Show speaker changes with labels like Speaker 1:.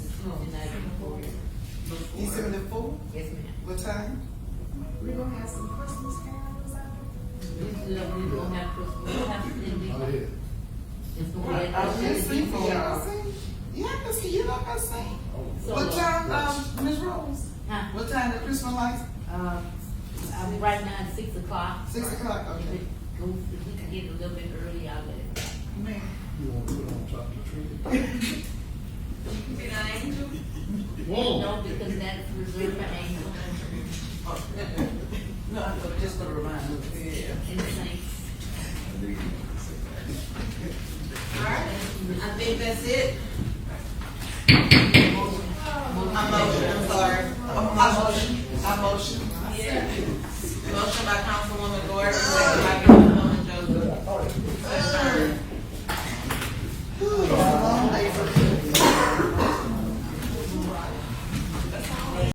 Speaker 1: December the fourth,
Speaker 2: Yes, ma'am.
Speaker 1: what time?
Speaker 3: We're gonna have some Christmas carols out there.
Speaker 2: This is, uh, we gonna have Christmas, we have
Speaker 4: Oh,
Speaker 2: to,
Speaker 4: yeah.
Speaker 2: it's gonna be.
Speaker 1: I can sing for y'all. Yeah, Oh, I can see, you know, I can sing.
Speaker 4: Oh,
Speaker 2: So,
Speaker 1: What time, um, Ms. Rose?
Speaker 2: Huh?
Speaker 1: What time the Christmas lights?
Speaker 2: Uh, I mean, right now it's six o'clock.
Speaker 1: Six o'clock,
Speaker 2: If
Speaker 1: okay.
Speaker 2: it goes, if we can get a little bit early, I'll let it.
Speaker 1: Man,
Speaker 4: You want to put it on top of the tree?
Speaker 5: Be an angel.
Speaker 2: No, because that's reserved for angels
Speaker 1: no, I thought just gonna remind you. Yeah.
Speaker 2: and saints.
Speaker 5: Alright, I think that's it. A motion, I'm sorry.
Speaker 1: I motion, I motion.
Speaker 5: Yeah. Motion by Councilwoman Gordon, second by